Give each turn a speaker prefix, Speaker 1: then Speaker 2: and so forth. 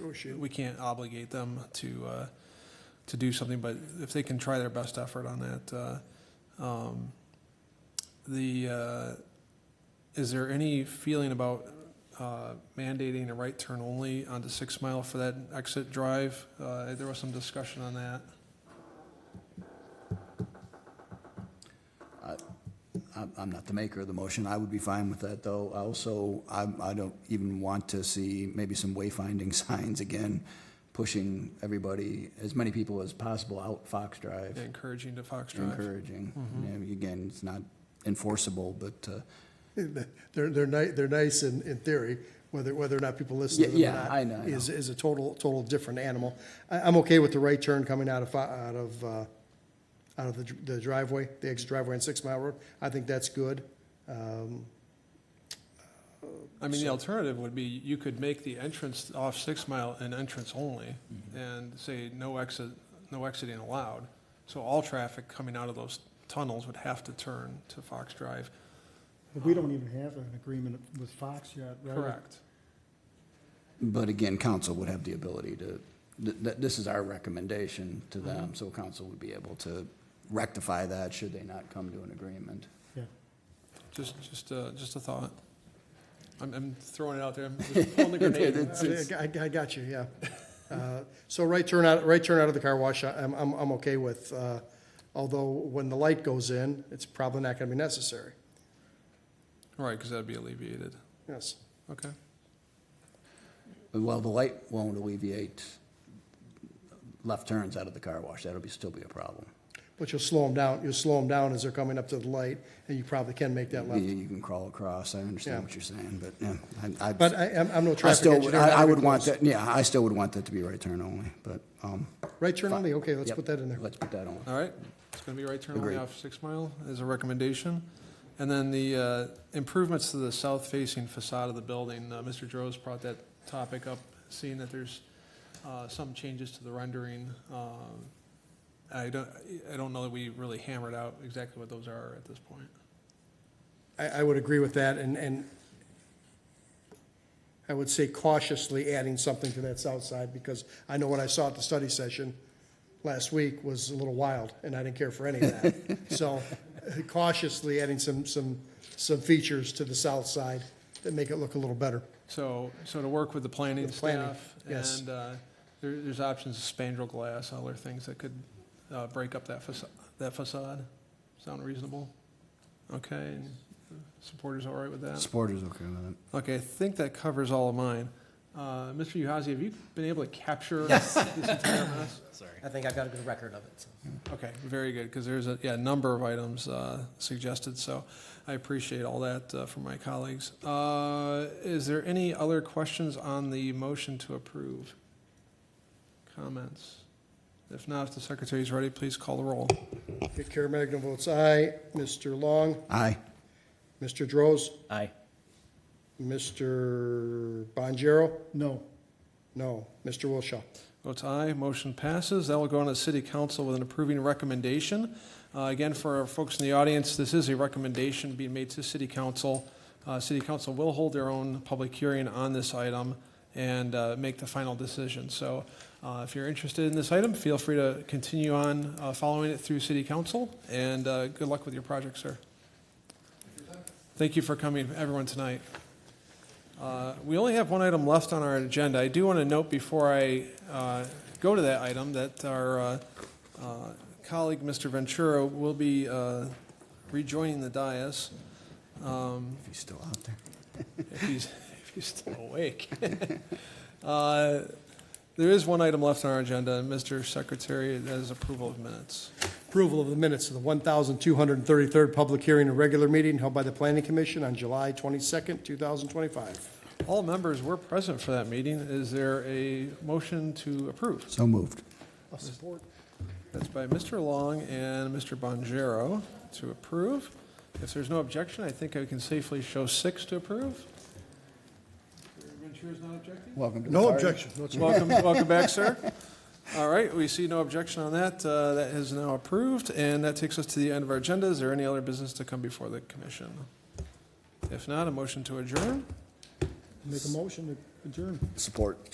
Speaker 1: horseshoe.
Speaker 2: we can't obligate them to, uh, to do something, but if they can try their best effort on that, uh, um, the, uh, is there any feeling about, uh, mandating a right turn only onto Six Mile for that exit drive? Uh, there was some discussion on that.
Speaker 1: I'm, I'm not the maker of the motion. I would be fine with that, though. I Also, I, I don't even want to see maybe some wayfinding signs again, pushing everybody, as many people as possible out Fox Drive,
Speaker 2: Encouraging to Fox Drive.
Speaker 1: encouraging. And Again, it's not enforceable, but, uh,
Speaker 3: They're, they're ni, they're nice in, in theory, whether, whether or not people listen to them
Speaker 1: Yeah,
Speaker 3: or
Speaker 1: yeah,
Speaker 3: not.
Speaker 1: I know, I know.
Speaker 3: Is, is a total, total different animal. I, I'm okay with the right turn coming out of, fi- out of, uh, out of the dr- the driveway, the exit driveway on Six Mile Road. I think that's good. Um,
Speaker 2: I mean, the alternative would be you could make the entrance off Six Mile an entrance only
Speaker 1: Mm-hmm.
Speaker 2: and say no exit, no exiting allowed. So all traffic coming out of those tunnels would have to turn to Fox Drive.
Speaker 4: But we don't even have an agreement with Fox yet, right?
Speaker 2: Correct.
Speaker 1: but again, council would have the ability to, th- th- this is our recommendation to them, so council would be able to rectify that should they not come to an agreement.
Speaker 4: Yeah.
Speaker 2: Just, just, uh, just a thought. I'm, I'm throwing it out there. I'm just pulling the grenade.
Speaker 1: It's- it's-
Speaker 3: I, I- I got you, yeah. Uh, So right turn out, right turn out of the car wash, I- I'm, I'm, I'm okay with, uh, although when the light goes in, it's probably not gonna be necessary.
Speaker 2: Right, because that'd be alleviated.
Speaker 3: Yes.
Speaker 2: Okay.
Speaker 1: Well, the light won't alleviate left turns out of the car wash. That'll be, still be a problem.
Speaker 3: But you'll slow them down, you'll slow them down as they're coming up to the light, and you probably can make that
Speaker 1: You
Speaker 3: left.
Speaker 1: you can crawl across. I understand
Speaker 3: Yeah.
Speaker 1: what you're saying, but, yeah, I, I.
Speaker 3: But I, I'm, I'm no
Speaker 1: I
Speaker 3: traffic
Speaker 1: still, would-
Speaker 3: engineer.
Speaker 1: I,
Speaker 3: not
Speaker 1: I
Speaker 3: even
Speaker 1: would want
Speaker 3: close.
Speaker 1: that, yeah, I still would want that to be right turn only, but, um.
Speaker 3: Right turn
Speaker 1: fi-
Speaker 3: only, okay, let's
Speaker 1: yep,
Speaker 3: put that in there.
Speaker 1: Let's put that on.
Speaker 2: All right, it's gonna be right turn only
Speaker 1: Agreed.
Speaker 2: off Six Mile as a recommendation. And then the uh, improvements to the south-facing facade of the building, uh, Mr. Droz brought that topic up, seeing that there's uh, some changes to the rendering. Um, I don't, I don't know that we really hammered out exactly what those are at this point.
Speaker 3: I, I would agree with that, and, and I would say cautiously adding something to that south side, because I know what I saw at the study session last week was a little wild, and I didn't care for any of that. So cautiously adding some, some, some features to the south side that make it look a little better.
Speaker 2: So, so to work with the planning
Speaker 3: With planning,
Speaker 2: staff,
Speaker 3: yes.
Speaker 2: and uh, there, there's options of spandrel glass, other things that could uh, break up that facade, that facade. Sound reasonable? Okay, and supporters all right with that?
Speaker 1: Supporters okay with it.
Speaker 2: Okay, I think that covers all of mine. Uh, Mr. Uhazy, have you been able to capture this entire mess?
Speaker 5: I think I've got a good record of it, so.
Speaker 2: Okay, very good, because there's a, yeah, a number of items uh, suggested, so I appreciate all that uh, from my colleagues. Uh, Is there any other questions on the motion to approve? Comments? If not, if the secretary's ready, please call the roll.
Speaker 3: Okay, Karen Magna votes aye. Mr. Long,
Speaker 1: Aye.
Speaker 3: Mr. Droz,
Speaker 5: Aye.
Speaker 3: Mr. Bonjero?
Speaker 4: No,
Speaker 3: No. Mr. Wilshaw?
Speaker 2: Votes aye, motion passes. That will go on to City Council with an approving recommendation. Uh, Again, for our folks in the audience, this is a recommendation being made to City Council. Uh, City Council will hold their own public hearing on this item and uh, make the final decision. So uh, if you're interested in this item, feel free to continue on uh, following it through City Council, and uh, good luck with your project, sir. Thank you for coming, everyone, tonight. Uh, We only have one item left on our agenda. I do want to note before I uh, go to that item that our uh, uh, colleague, Mr. Ventura, will be uh, rejoining the dais
Speaker 1: If he's still out there.
Speaker 2: if he's, if he's still awake. Uh, There is one item left on our agenda, and Mr. Secretary, that is approval of minutes.
Speaker 3: Approval of the minutes of the 1,233rd public hearing and regular meeting held by the Planning Commission on July 22nd, 2025.
Speaker 2: All members were present for that meeting. Is there a motion to approve?
Speaker 1: So moved.
Speaker 3: I'll support.
Speaker 2: That's by Mr. Long and Mr. Bonjero to approve. If there's no objection, I think I can safely show six to approve. Ventura's not objecting?
Speaker 1: Welcome to the
Speaker 4: no
Speaker 1: party.
Speaker 4: objection.
Speaker 2: Welcome, welcome back, sir. All right, we see no objection on that. Uh, That is now approved, and that takes us to the end of our agenda. Is there any other business to come before the commission? If not, a motion to adjourn?
Speaker 4: Make a motion to adjourn.
Speaker 1: Support.